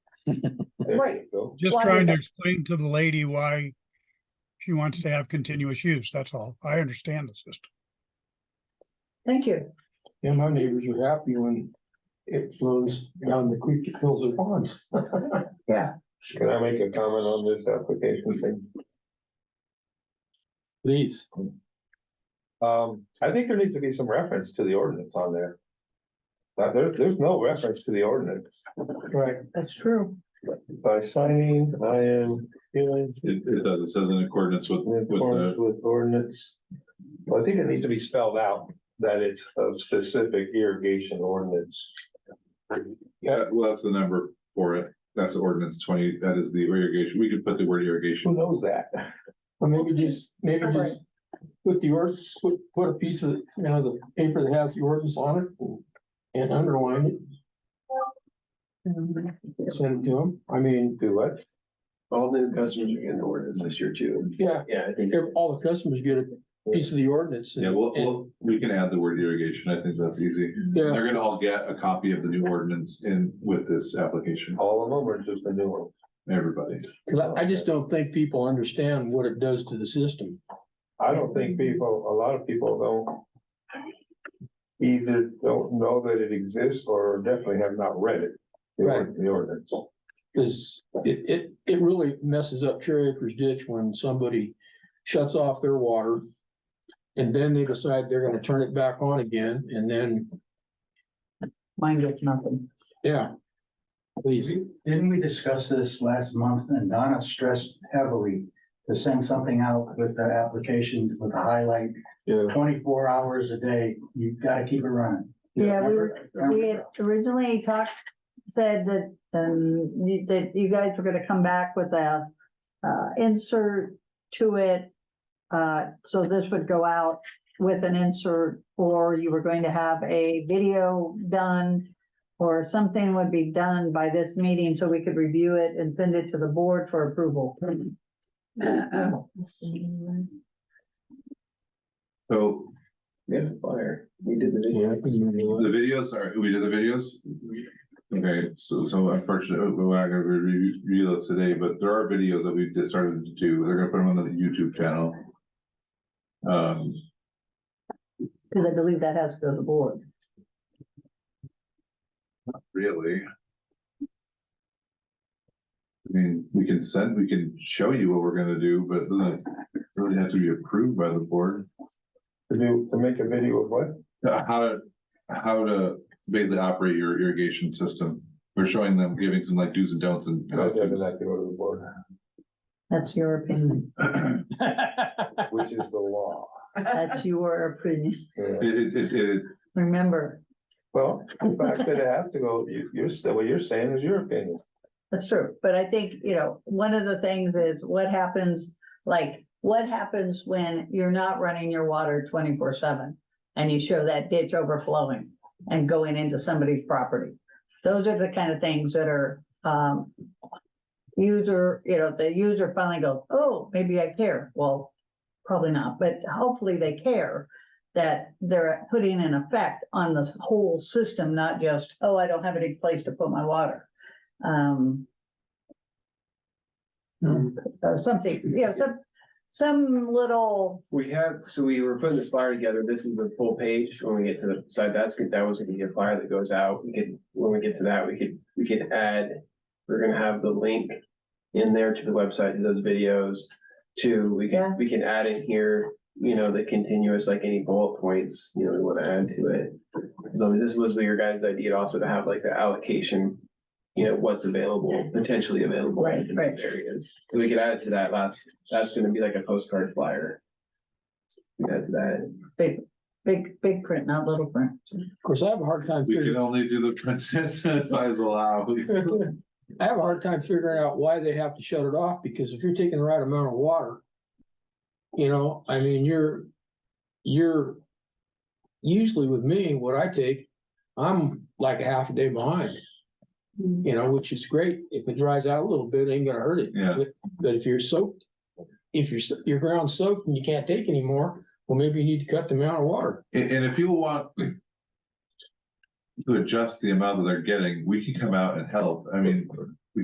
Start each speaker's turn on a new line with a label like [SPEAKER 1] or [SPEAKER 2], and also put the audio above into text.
[SPEAKER 1] There you
[SPEAKER 2] Right.
[SPEAKER 1] go.
[SPEAKER 3] Just
[SPEAKER 2] Why is
[SPEAKER 3] trying to
[SPEAKER 2] that?
[SPEAKER 3] explain to the lady why she wants to have continuous use, that's all. I understand the system.
[SPEAKER 2] Thank you.
[SPEAKER 4] Yeah, my neighbors are happy when it flows down the creek that fills their ponds.
[SPEAKER 1] Can I make a comment on this application thing?
[SPEAKER 4] Please.
[SPEAKER 1] Um, I think there needs to be some reference to the ordinance on there. Now, there, there's no reference to the ordinance.
[SPEAKER 4] Right.
[SPEAKER 2] That's true.
[SPEAKER 1] By signing, I am feeling
[SPEAKER 5] It, it does, it says in accordance with,
[SPEAKER 1] in
[SPEAKER 5] with
[SPEAKER 1] accordance
[SPEAKER 5] the,
[SPEAKER 1] with ordinance. Well, I think it needs to be spelled out that it's a specific irrigation ordinance.
[SPEAKER 5] yeah, well, that's the number for it. That's ordinance twenty, that is the irrigation, we could put the word
[SPEAKER 1] Who
[SPEAKER 5] irrigation.
[SPEAKER 1] knows that?
[SPEAKER 4] Or maybe just, maybe
[SPEAKER 2] Right.
[SPEAKER 4] just put the ord, put, put a piece of, you know, the paper that has the ordinance on it and underline it, send it to them. I mean,
[SPEAKER 1] Do what?
[SPEAKER 6] All new customers are getting the ordinance this year too.
[SPEAKER 4] yeah,
[SPEAKER 6] Yeah, I think.
[SPEAKER 4] if all the customers get a piece of the ordinance. and-
[SPEAKER 5] Yeah, well, well, we can add the word irrigation, I think that's easy.
[SPEAKER 4] Yeah,
[SPEAKER 5] They're gonna all get a copy of the new ordinance in, with this application,
[SPEAKER 1] All of them or just the new one?
[SPEAKER 5] everybody.
[SPEAKER 4] cause I, I just don't think people understand what it does to the system.
[SPEAKER 1] I don't think people, a lot of people don't. Either don't know that it exists or definitely have not read it. the ord- The ordinance.
[SPEAKER 4] Cause it, it, it really messes up Cherry Acres ditch when somebody shuts off their water. And then they decide they're gonna turn it back on again, and then,
[SPEAKER 2] Mine gets nothing.
[SPEAKER 4] yeah. Please,
[SPEAKER 7] Didn't we discuss this last month and Donna stressed heavily to send something out with the applications with a highlight,
[SPEAKER 4] yeah,
[SPEAKER 7] twenty-four hours a day, you've gotta keep it running.
[SPEAKER 2] Yeah, we were,
[SPEAKER 7] Remember-
[SPEAKER 2] we had originally talked, said that, um, you- that you guys were gonna come back with a, uh, insert to it. Uh, so this would go out with an insert, or you were going to have a video done. Or something would be done by this meeting so we could review it and send it to the board for approval.
[SPEAKER 5] So
[SPEAKER 6] There's a fire. We did the video.
[SPEAKER 4] yeah.
[SPEAKER 5] The videos are, we did the videos? Okay, so, so oh, unfortunately, we're not gonna re- review those today, but there are videos that we've just started to do, they're gonna put them on the YouTube channel. Um,
[SPEAKER 2] Cause I believe that has to go to the board.
[SPEAKER 5] really. I mean, we can send, we can show you what we're gonna do, but it doesn't really have to be approved by the board.
[SPEAKER 1] To do, to make a video of what?
[SPEAKER 5] Uh, How to, how to basically operate your irrigation system, we're showing them, giving some like do's and don'ts and. how
[SPEAKER 1] That
[SPEAKER 5] to-
[SPEAKER 1] doesn't have to go to the board,
[SPEAKER 2] That's your
[SPEAKER 6] Mm-hmm.
[SPEAKER 2] opinion.
[SPEAKER 1] which is the law.
[SPEAKER 2] That's your opinion.
[SPEAKER 1] Yeah.
[SPEAKER 5] It, it, it, it,
[SPEAKER 2] Remember,
[SPEAKER 1] Well, the fact that it has to go, you, you're still, what you're saying is your opinion.
[SPEAKER 2] that's true. But I think, you know, one of the things is what happens, like, what happens when you're not running your water twenty-four seven? And you show that ditch overflowing and going into somebody's property. Those are the kind of things that are, um, user, you know, the user finally goes, oh, maybe I care. Well, probably not, but hopefully they care that they're putting an effect on this whole system, not just, oh, I don't have any place to put my water. Um. Or something, you know, some, some little,
[SPEAKER 6] We have, so we were putting this flyer together. This is the full page. When we get to the side, that's good. That was gonna be a flyer that goes out. We could, when we get to that, we could, we could add. We're gonna have the link in there to the website, to those videos. To, we
[SPEAKER 2] Yeah.
[SPEAKER 6] can, we can add in here, you know, the continuous, like any bullet points, you know, we wanna add to it. So this was your guys' idea also to have like the allocation, you know, what's available, potentially available.
[SPEAKER 2] Right,
[SPEAKER 6] in
[SPEAKER 2] right.
[SPEAKER 6] these Areas. So we could add it to that last, that's gonna be like a postcard flyer. We add to that.
[SPEAKER 2] big, big print, not little print.
[SPEAKER 4] Of course, I have a hard time
[SPEAKER 5] We can
[SPEAKER 4] figuring,
[SPEAKER 5] only do the princess size allows.
[SPEAKER 4] I have a hard time figuring out why they have to shut it off, because if you're taking the right amount of water. You know, I mean, you're, you're, usually with me, what I take, I'm like a half a day behind. you know, which is great. If it dries out a little bit, it ain't gonna hurt it.
[SPEAKER 5] Yeah.
[SPEAKER 4] But- But if you're soaked, if your, s- your ground's soaked and you can't take anymore, well, maybe you need to cut the amount of water.
[SPEAKER 5] And, and if people want to adjust the amount that they're getting, we can come out and help. I mean,